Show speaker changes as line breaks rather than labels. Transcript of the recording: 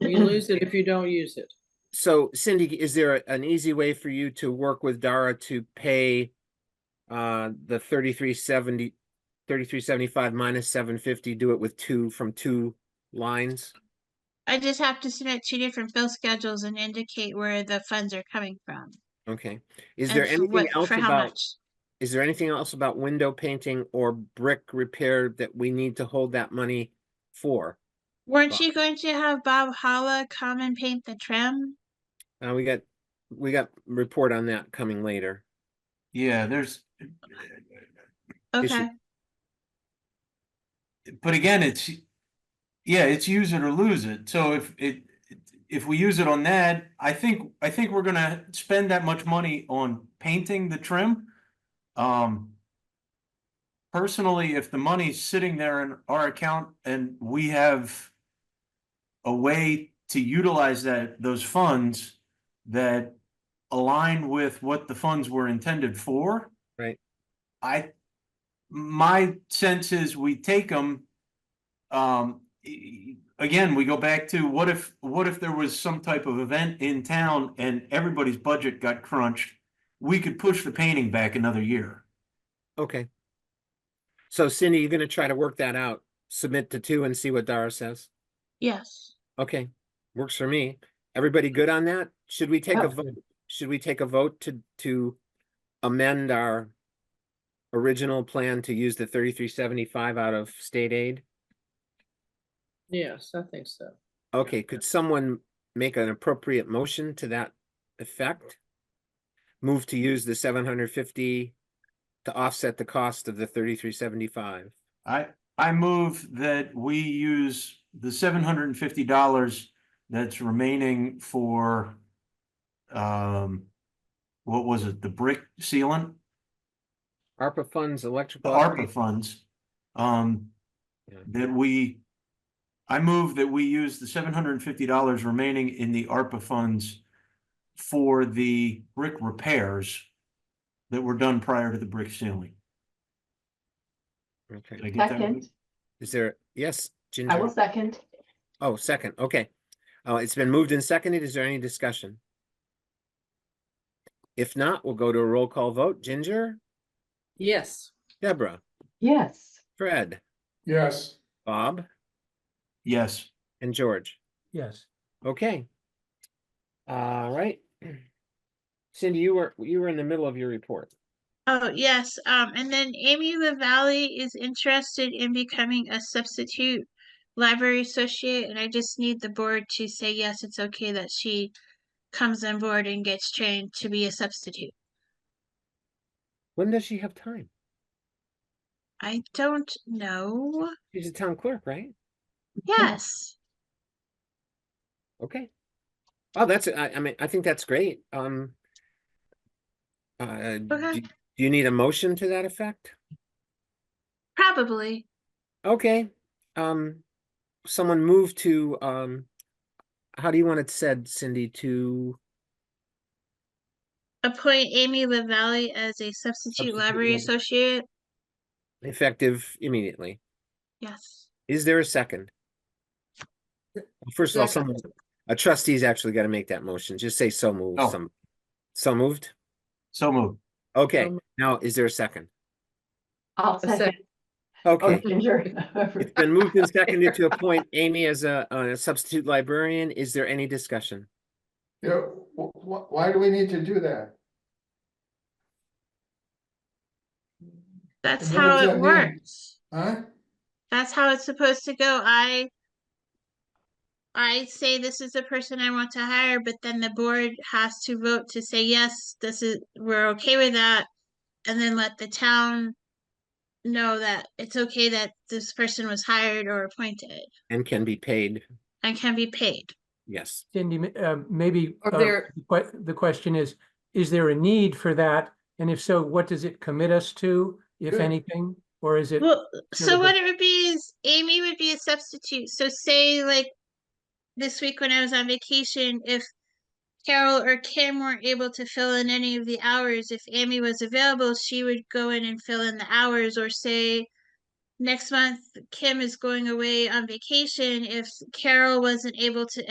You lose it if you don't use it.
So Cindy, is there a- an easy way for you to work with Dara to pay uh, the thirty-three seventy, thirty-three seventy-five minus seven fifty, do it with two, from two lines?
I just have to submit two different bill schedules and indicate where the funds are coming from.
Okay. Is
and
there
for
anything
what-
else
for how
about,
much.
is there anything else about window painting or brick repair that we need to hold that money for?
Weren't
Bob?
you going to have Bob Holla come and paint the trim?
Uh, we got, we got report on that coming later.
Yeah, there's,
Is it-
Okay,
but again, it's, yeah, it's use it or lose it. So if it, if we use it on that, I think, I think we're gonna spend that much money on painting the trim. Um, personally, if the money's sitting there in our account and we have a way to utilize that, those funds that align with what the funds were intended for.
Right.
I, my sense is we take them. Um, e- again, we go back to what if, what if there was some type of event in town and everybody's budget got crunched? We could push the painting back another year.
Okay. So Cindy, you're gonna try to work that out, submit to two and see what Dara says?
yes.
Okay, works for me. Everybody good on that? Should we take a
Yep.
vote? Should we take a vote to, to amend our original plan to use the thirty-three seventy-five out of state aid?
Yes, I think so.
Okay, could someone make an appropriate motion to that effect? Move to use the seven hundred fifty to offset the cost of the thirty-three seventy-five.
I, I move that we use the seven hundred and fifty dollars that's remaining for um, what was it, the brick sealant?
ARPA funds,
the
electrical.
ARPA funds, um,
Yeah.
that we, I move that we use the seven hundred and fifty dollars remaining in the ARPA funds for the brick repairs that were done prior to the brick ceiling.
Okay,
Did I get that right?
Second,
is there, yes, Ginger?
I will second.
Oh, second, okay. Uh, it's been moved and seconded. Is there any discussion? If not, we'll go to a roll call vote. Ginger,
Yes,
Deborah,
Yes,
Fred,
Yes,
Bob,
Yes,
and George.
Yes,
Okay. All right. Cindy, you were, you were in the middle of your report.
Oh, yes, um, and then Amy LaValley is interested in becoming a substitute library associate, and I just need the board to say, yes, it's okay that she comes on board and gets trained to be a substitute.
When does she have time?
I don't know.
She's a town clerk, right?
Yes.
Okay. Oh, that's, I, I mean, I think that's great. Um. Uh, do
Okay.
do you need a motion to that effect?
Probably.
Okay, um, someone move to, um, how do you want it said, Cindy, to,
Appoint Amy LaValley as a substitute
Substitute
library
library.
associate.
effective immediately?
Yes.
Is there a second? First of all, someone, a trustee's actually gotta make that motion, just say so moved,
Oh.
some, so moved?
so moved.
Okay,
moved.
now, is there a second?
I'll
second.
second. Oh,
Okay,
Ginger.
it's been moved and seconded to appoint Amy as a, a substitute librarian, is there any discussion?
yeah, wh- wh- why do we need to do that?
That's
what
how
does that
it
mean?
works.
Huh?
That's how it's supposed to go. I I say this is the person I want to hire, but then the board has to vote to say yes, this is we're okay with that. And then let the town know that it's okay that this person was hired or appointed
And can be paid,
and can be paid.
yes,
Cindy, m- uh, maybe.
Are
uh,
there-
the que- the question is, is there a need for that? And if so, what does it commit us to, if
Good.
anything? Or is it,
Well,
the
so what
best-
it would be is Amy would be a substitute. So say like this week when I was on vacation, if Carol or Kim weren't able to fill in any of the hours, if Amy was available, she would go in and fill in the hours or say next month Kim is going away on vacation. If Carol wasn't able to